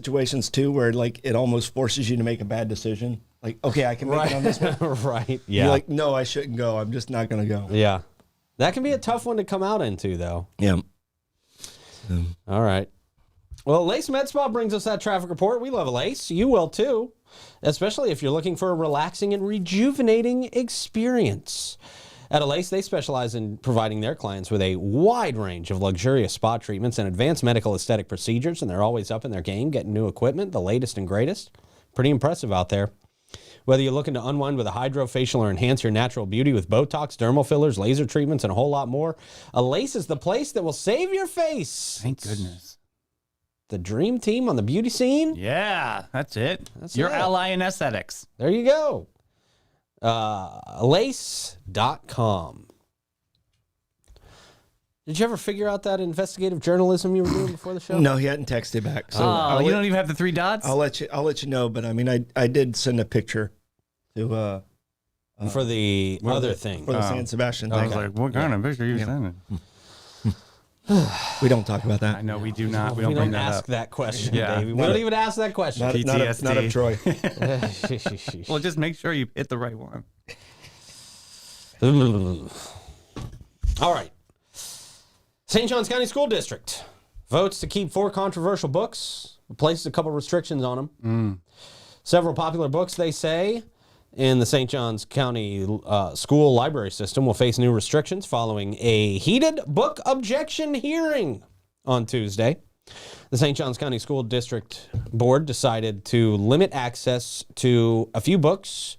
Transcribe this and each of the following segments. situations too where like it almost forces you to make a bad decision. Like, okay, I can make it on this one. right. Yeah. You're like, no, I shouldn't go. I'm just not gonna go. yeah. That can be a tough one to come out into, though. Yeah. All right. Well, Lace Med Spa brings us that traffic report. We love Lace. You will too, especially if you're looking for a relaxing and rejuvenating experience. At Alace, they specialize in providing their clients with a wide range of luxurious spa treatments and advanced medical aesthetic procedures, and they're always up in their game, getting new equipment, the latest and greatest. Pretty impressive out there. Whether you're looking to unwind with a hydrofacial or enhance your natural beauty with Botox, dermal fillers, laser treatments, and a whole lot more, Alace is the place that will save your face Thank goodness. the dream team on the beauty scene. Yeah, that's it. That's Your it. ally in aesthetics. There you go. Uh, lace.com. Did you ever figure out that investigative journalism you were doing before the show? No, he hadn't texted back. So Oh, I'll, you let, don't even have the three dots. I'll let you I'll let you know, but I mean I I did send a picture to uh For the other thing. for the Oh. San Sebastian I thing. was like, what kind of picture are you sending? we don't talk about I that. know we do not. We we don't, don't, bring that ask up. that question, Yeah. Davey. We don't even ask that Not, question. not, of, not of PTSD. Troy. Well, just make sure you hit the right one. All right. St. John's County School District votes to keep four controversial books, places a couple restrictions on them. Several popular books, they say, in the St. John's County uh, school library system will face new restrictions following a heated book objection hearing on Tuesday. The St. John's County School District Board decided to limit access to a few books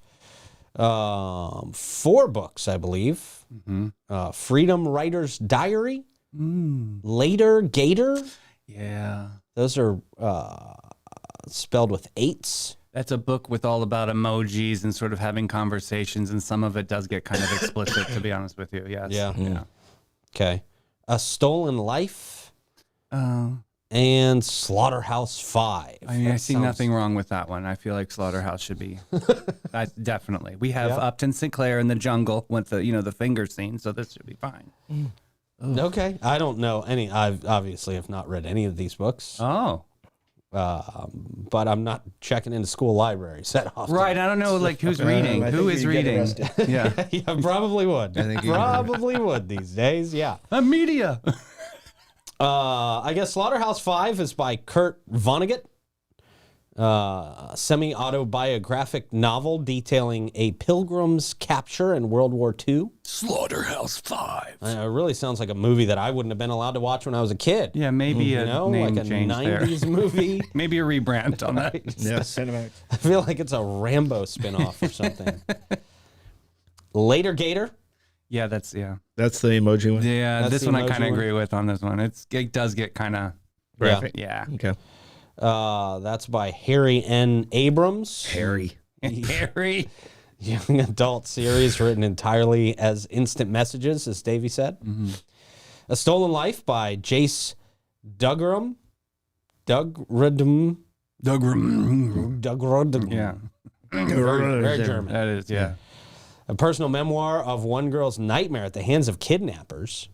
um, four books, I believe. Mm-hmm. Uh, Freedom Writer's Diary, Later Gator. Hmm, Yeah. Those are uh, spelled with eights. That's a book with all about emojis and sort of having conversations, and some of it does get kind of explicit, to be honest with you. Yes. Yeah. Yeah. Okay. A Stolen Life Oh, and Slaughterhouse Five. I mean, I That see sounds- nothing wrong with that one. I feel like Slaughterhouse should be. I, definitely. We have Yeah. Upton Sinclair in the jungle with the, you know, the finger scene, so this should be fine. Okay. I don't know any. I've obviously have not read any of these books, Oh. um, but I'm not checking into school libraries that often. Right. I don't know, like, who's reading? I Who think is you'd get reading? arrested. Yeah. yeah, probably would. I think you- probably would these days. Yeah. A media. Uh, I guess Slaughterhouse Five is by Kurt Vonnegut, uh, semi autobiographic novel detailing a pilgrim's capture in World War II. Slaughterhouse 5. Uh, it really sounds like a movie that I wouldn't have been allowed to watch when I was a kid. Yeah, maybe a you know, name like a change '90s there. movie. maybe a rebrand on that. Yeah, Cinemax. I feel like it's a Rambo spinoff or something. Later Gator. Yeah, that's yeah. That's the emoji one. Yeah, That's this the one I kind emoji of one. agree with on this one. It's it does get kind of yeah. Okay. Uh, that's by Harry N. Abrams. Harry. Harry. young adult series written entirely as instant messages, as Davey said. A Stolen Life by Jace Dugram. Dugradum. Doug. Dugradum. Yeah, Very, very German. that is yeah. A personal memoir of one girl's nightmare at the hands of kidnappers.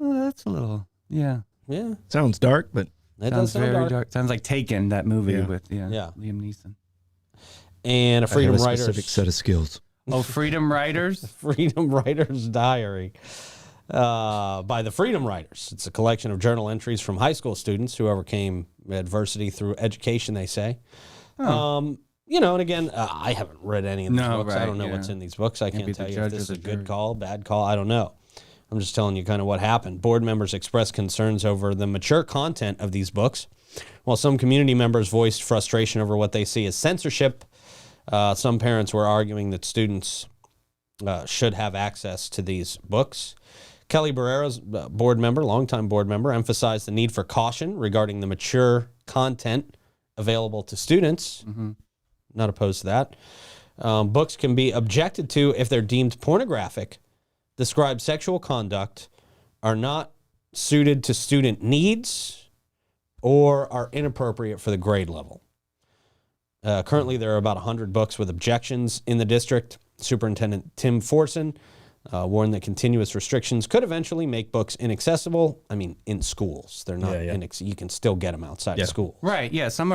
Oh, that's a little yeah. Yeah, Sounds dark, but that does Sounds sound very dark. dark. Sounds like Taken that movie Yeah. with yeah, Yeah. Liam Neeson. And a Freedom I have a Writers. specific set of skills. Oh, Freedom Riders. Freedom Writers Diary uh, by the Freedom Writers. It's a collection of journal entries from high school students who overcame adversity through education, they say. Um, you know, and again, uh, I haven't read any of these No, books. I right, don't know yeah. what's in these books. I can't, be the tell you if judge this or is the a good jury. call, bad call. I don't know. I'm just telling you kind of what happened. Board members expressed concerns over the mature content of these books, while some community members voiced frustration over what they see as censorship. Uh, some parents were arguing that students uh, should have access to these books. Kelly Barrera's uh, board member, longtime board member, emphasized the need for caution regarding the mature content available to students. Mm-hmm. Not opposed to that. Um, books can be objected to if they're deemed pornographic, describe sexual conduct, are not suited to student needs, or are inappropriate for the grade level. Uh, currently, there are about 100 books with objections in the district. Superintendent Tim Forson uh, warned that continuous restrictions could eventually make books inaccessible. I mean, in schools, they're not. Yeah, yeah. inex- you can still get them outside Yeah. of school. Right. Yeah. Some